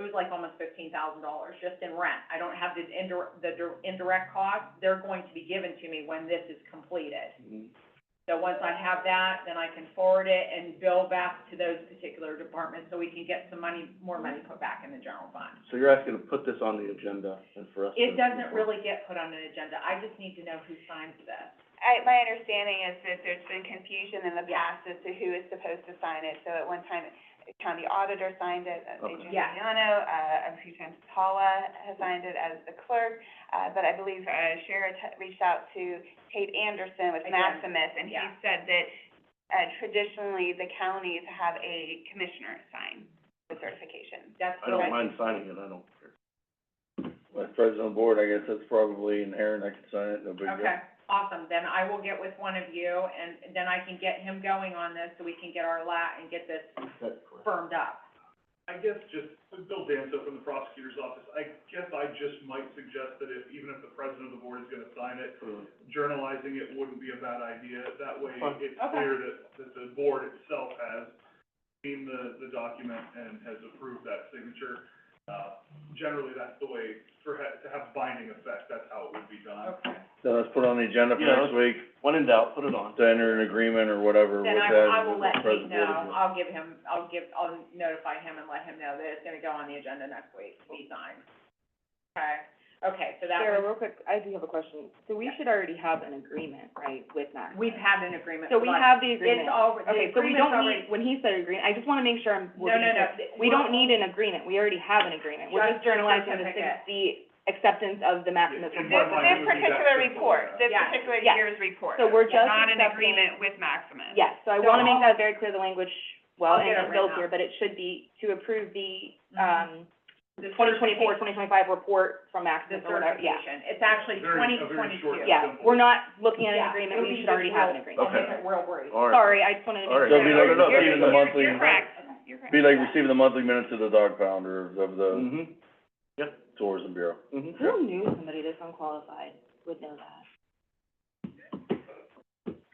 it was like almost fifteen thousand dollars just in rent. I don't have the indir- the dir- indirect costs, they're going to be given to me when this is completed. So once I have that, then I can forward it and bill back to those particular departments, so we can get some money, more money put back in the general fund. So you're asking to put this on the agenda and for us to. It doesn't really get put on an agenda, I just need to know who signs this. I, my understanding is that there's been confusion in the Yeah. past as to who is supposed to sign it, so at one time, the county auditor signed it, uh, Okay. Adrian Yeah. Giuliano, uh, a few times Paula has signed it as the clerk, uh, but I believe, uh, Shara t- reached out to Tate Anderson with Again, Maximus, and he yeah. said that, uh, traditionally, the counties have a commissioner sign the certification. That's I what don't I, mind signing it, I don't care. As president of the board, I guess that's probably inherent, I could sign it, no big deal. okay, awesome, then I will get with one of you, and then I can get him going on this, so we can get our lat and get this That's correct. firmed up. I guess just, Bill Danza from the prosecutor's office, I guess I just might suggest that if, even if the president of the board is gonna sign it, journalizing it wouldn't be a bad idea. That way, Fine. it's Okay. clear that, that the board itself has seen the, the document and has approved that signature. Uh, generally, that's the way, for, ha- to have binding effect, that's how it would be done. Okay. So let's put it on the agenda for Yeah, next week, When in doubt, put it on. to enter an agreement or whatever with Then that. I, will- I will with let the Pete president of the know, board. I'll give him, I'll give, I'll notify him and let him know that it's gonna go on the agenda next week, to be signed. Okay, okay, so that Sarah, was, real quick, I do have a question. So we Yeah. should already have an agreement, right, with Max? we've had an agreement. So we like- have the It's agreement. all, the Okay, so we agreement's don't already. need, when he said agreement, I just wanna make sure I'm, we're No, no, being no. clear. We We're- don't need an agreement, we already have an agreement. We're Just just journalizing the, certificate. the acceptance of the Maximus Yeah, This, One this line report. would be that particular simple, report, this yeah. particular Yeah. year's report, So we're is just not in accepting- agreement with Maximus. Yes, so I So wanna I'll- make that very clear, the language, well, I'll and get it it's built written here, up. but it should be to approve the, Mhm. um, the twenty twenty-four, certification- twenty twenty-five report from The Maximus or whatever, yeah. certification, it's actually Very- twenty a very twenty-two. short Yeah. Yeah, we're not looking at an agreement, we should already have an agreement. Okay, Okay. real brief. All right. Sorry, I just wanted to All make right. sure. So it'd be like No, no, no, receiving the you're- monthly. You're correct, you're correct. Be like receiving the monthly minutes of the dog pound or of the Mm-hmm, tourism bureau. mm-hmm. Who knew somebody this unqualified would know that?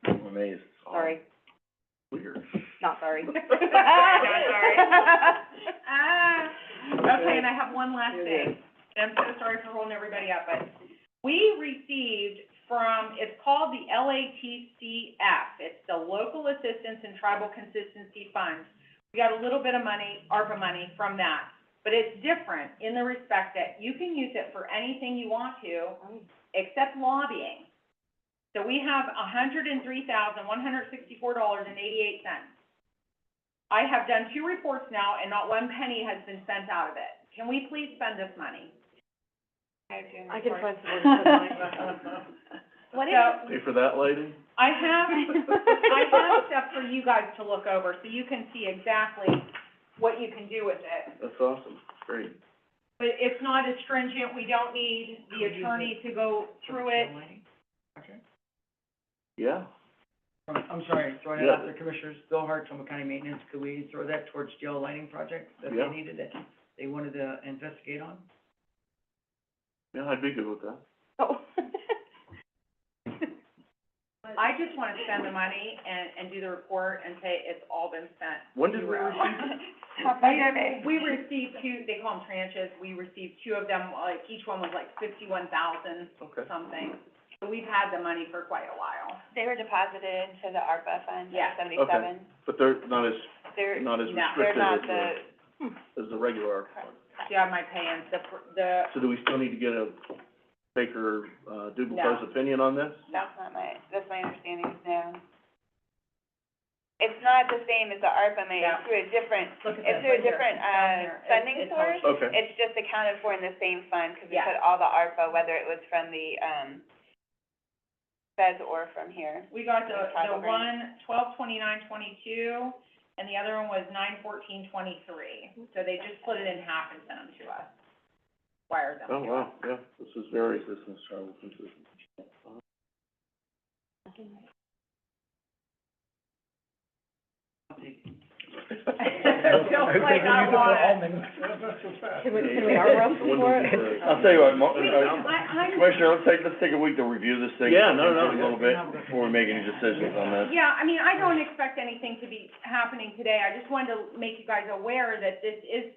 I'm amazed. Sorry, Weird. not sorry. sorry. Ah, okay, and I have one last thing, and I'm so sorry for holding everybody up, but we received from, it's called the LATCF, it's the Local Assistance and Tribal Consistency Fund. We got a little bit of money, ARPA money from that, but it's different in the respect that you can use it for anything you want to, except lobbying. So we have hundred and three thousand, one hundred sixty-four dollars and eighty-eight cents. I have done two reports now and not one penny has been spent out of it. Can we please spend this money? I can find What is? Pay for that lady? I have, I have stuff for you guys to look over, so you can see exactly what you can do with it. That's awesome, great. But it's not as stringent, we don't need the attorney to go through it. Yeah, I'm, I'm sorry, throwing it out there, Commissioners, Bill Hart, Trumbull County Maintenance, could we throw that towards jail lighting project that Yeah. they needed, that they wanted to investigate on? yeah, I'd be good with that. I just wanna spend the money and, and do the report and say it's all been spent. When did we Zero. receive? Pop my survey. We received two, they call them tranches, we received two of them, like, each one was like fifty-one thousand Okay. something. So we've had the money for quite a while. They were deposited to the ARPA fund, Yeah. Okay. seventy-seven. But they're not as, They're, not as No, they're they're not restrictive as the, the, as the regular. Do you have my pay-ins, the, pr- the, So do we still need to get a Baker, uh, No. Dubois opinion on this? that's not my, that's my understanding, no. It's not the same as the ARPA money, Yeah. it's through a different, look at this it's through right a here, different, it's down uh, here. It- funding it's all- source. Okay. It's just accounted for in the same fund, 'cause we Yeah. put all the ARPA, whether it was from the, um, feds or from here. We got the, the Tribal one, grant. twelve twenty-nine twenty-two, and the other one was nine fourteen twenty-three. So they just split it in half and sent them to us, wired them to Oh, us. wow, yeah, this is very, This is tribal consistent. Don't play that one. Can we, can can we we arm arm wrestle for it? I'll tell you what, Mo- uh, I, I'm. Commissioner, let's take, let's take a week to review this thing. Yeah, no, A no, little bit before we make any decisions on this. Yeah, I mean, I don't expect anything to be happening today, I just wanted to make you guys aware that this is